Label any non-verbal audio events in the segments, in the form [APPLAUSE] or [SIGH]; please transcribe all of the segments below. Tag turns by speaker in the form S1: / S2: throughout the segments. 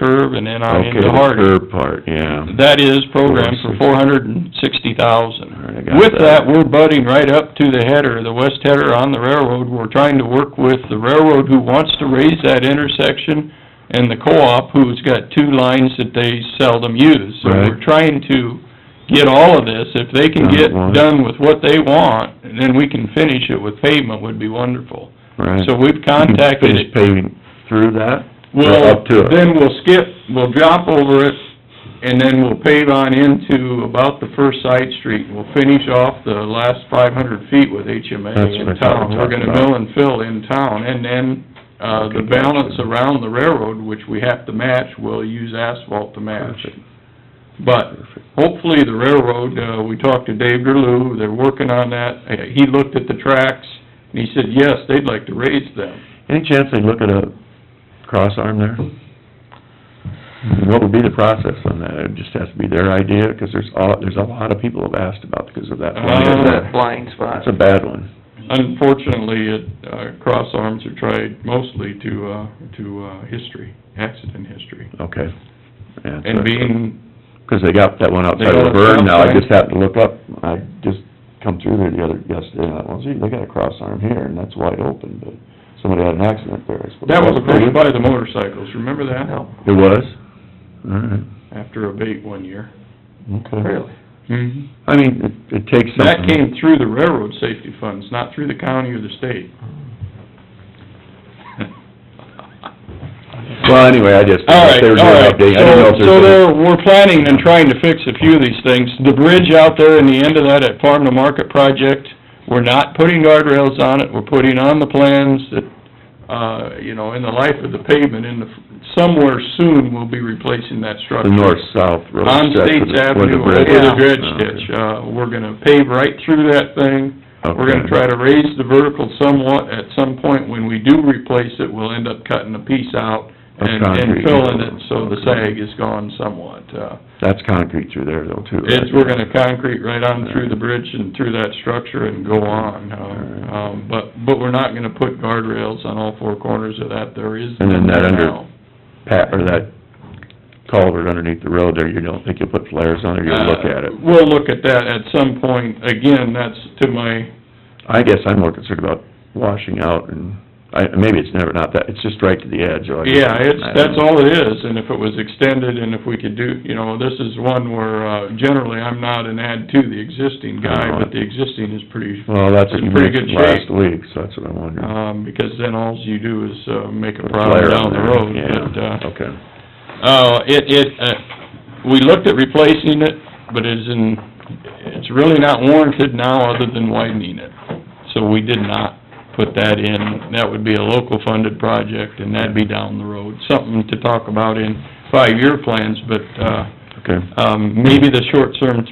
S1: curve and then out
S2: Okay,
S1: into
S2: the
S1: Harding.
S2: curb part, yeah.
S1: That is programmed for four hundred and sixty thousand.
S2: All right, I got
S1: With that, we're butting right up to the header, the west header on the railroad. We're trying to work with the railroad who wants to raise that intersection and the co-op who's got two lines that they seldom use. So we're
S2: Right.
S1: trying to get all of this. If they can
S2: Done at
S1: get
S2: once.
S1: done with what they want, then we can finish it with pavement would be wonderful.
S2: Right.
S1: So we've contacted
S2: [CLEARS THROAT] Finish paving through that? Or
S1: Well,
S2: up to it?
S1: then we'll skip, we'll drop over it, and then we'll pave on into about the first side street. We'll finish off the last five hundred feet with HMA
S2: That's what I
S1: in
S2: thought we
S1: town. We're
S2: talked
S1: gonna
S2: about.
S1: mill and fill in town, and then, uh, the
S2: Okay, gotcha.
S1: balance around the railroad, which we have to match, we'll use asphalt to match.
S2: Perfect.
S1: But hopefully the railroad, uh, we talked to Dave Gerlou, they're working on that. Uh, He looked at the tracks, and he said, yes, they'd like to raise them.
S2: Any chance they look at a cross arm there? What would be the process on that? It just has to be their idea, 'cause there's a, there's a lot of people have asked about because of that.
S1: Uh,
S3: that blind spot.
S2: That's a bad one.
S1: Unfortunately, it, uh, cross arms are tried mostly to, uh, to, uh, history, accident history.
S2: Okay. Yeah,
S1: And
S2: so-
S1: being,
S2: Cause they got that one outside
S1: They
S2: of
S1: got a
S2: Laverne now, I
S1: cross
S2: just happened to look up, I just come through there the other, yesterday, and I was, gee, they got a cross arm here, and that's wide open, but somebody had an accident there, I suppose.
S1: that was
S2: pretty
S1: pushed by the motorcycles, remember that?
S3: No,
S2: It was? Alright,
S1: After a bait one year.
S2: okay.
S3: really.
S1: Mm-hmm.
S2: I mean, it, it takes something.
S1: That came through the railroad safety funds, not through the county or the state.
S2: Well, anyway, I just,
S1: All right,
S2: they were doing
S1: all right.
S2: an update, I didn't know if
S1: So, so
S2: there's
S1: there, we're planning and trying to fix a few of these things. The bridge out there in the end of that at Farm to Market project, we're not putting guardrails on it, we're putting on the plans that, uh, you know, in the life of the pavement, in the, somewhere soon, we'll be replacing that
S2: a,
S1: structure.
S2: the north-south road.
S1: On
S2: stretch
S1: States
S2: with the- with the
S1: Avenue, over the
S2: bridge.
S3: Yeah.
S1: dredge
S2: Oh, okay.
S1: ditch. Uh, we're gonna pave right through that thing. We're gonna try to raise the vertical somewhat, at some point, when we do replace it, we'll end up cutting a piece out
S2: Of
S1: and, and
S2: concrete.
S1: filling it, so the
S2: Okay.
S1: sag is gone somewhat. Uh,
S2: That's concrete through there though, too.
S1: it's,
S2: right?
S1: we're gonna concrete right on through the bridge and through that structure and go on, uh,
S2: Alright.
S1: um, but, but we're not gonna put guardrails on all four corners of that, there is.
S2: And then that
S1: none
S2: under-
S1: now.
S2: Pat, or that culvert underneath the road there, you don't think you'll put flares on it, or you'll look at it?
S1: Uh, We'll look at that at some point, again, that's to my,
S2: I guess I'm more concerned about washing out and, I, maybe it's never not that, it's just right to the edge. or I-
S1: Yeah, it's,
S2: I don't
S1: that's
S2: know.
S1: all it is, and if it was extended, and if we could do, you know, this is one where, uh, generally, I'm not an add to the existing guy, but the existing is pretty,
S2: Well, that's what
S1: It's
S2: you
S1: in pretty good
S2: mentioned last week, so that's what I wondered.
S1: um, because then all you do is, uh, make a
S2: Put a
S1: problem
S2: flare
S1: down
S2: on
S1: the
S2: there,
S1: road,
S2: yeah, Oh.
S1: but, uh,
S2: Okay,
S1: uh, it, it, uh, we looked at replacing it, but it's in, it's really not warranted now other than widening it. So we did not put that in. That would be a local funded project and that'd be down the road. Something to talk about in five-year plans, but, uh,
S2: okay.
S1: um, maybe the short-term,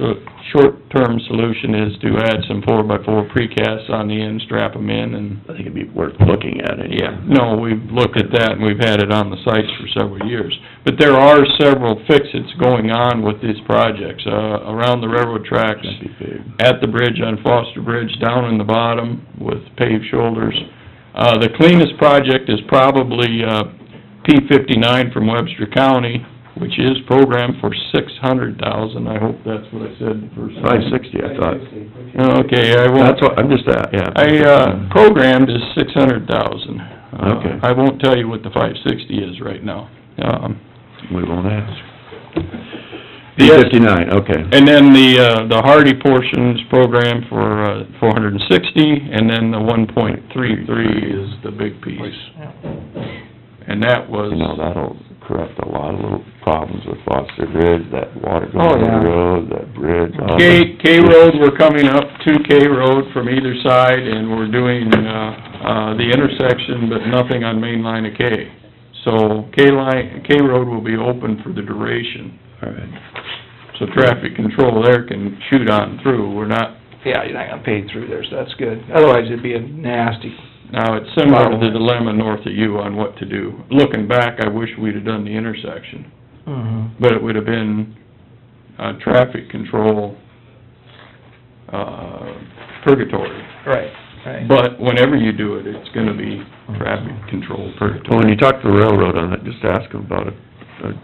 S1: short-term solution is to add some four-by-four precasts on the end, strap them in and,
S2: I think it'd be worth looking at anyway.
S1: yeah, no, we've looked at that and we've had it on the sites for several years. But there are several fixes going on with these projects, uh, around the railroad tracks,
S2: That'd be big.
S1: at the bridge on Foster Bridge, down in the bottom with paved shoulders. Uh, the cleanest project is probably, uh, P fifty-nine from Webster County, which is programmed for six hundred thousand. I hope that's what I said the first
S2: Five
S1: time.
S2: sixty, I thought.
S1: Okay, I won't.
S2: That's what, I'm just, uh, yeah.
S1: I, uh, programmed is six hundred thousand. Uh,
S2: Okay.
S1: I won't tell you what the five sixty is right now. Um,
S2: We won't ask. B
S1: Yes.
S2: fifty-nine, okay.
S1: and then the, uh, the Hardy portions programmed for, uh, four hundred and sixty, and then the one point three three is the big piece. And that was,
S2: You know, that'll correct a lot of little problems with Foster Bridge, that water
S3: Oh,
S2: going
S3: yeah.
S2: over the road, that bridge. all
S1: K,
S2: that.
S1: K Road, we're coming up to K Road from either side, and we're doing, uh, uh, the intersection, but nothing on main line of K. So K line, K Road will be open for the duration.
S2: All right.
S1: So traffic control there can shoot on through, we're not,
S3: Yeah, you're not gonna pay through there, so that's good. Otherwise, it'd be a nasty,
S1: now, it's similar to the dilemma north of you on what to do. Looking back, I wish we'd have done the intersection, but it would have been, uh, traffic control, uh, purgatory.
S3: right, right.
S1: But whenever you do it, it's gonna be traffic control
S2: Well,
S1: purgatory.
S2: when you talk to the railroad on it, just ask them about it,
S1: a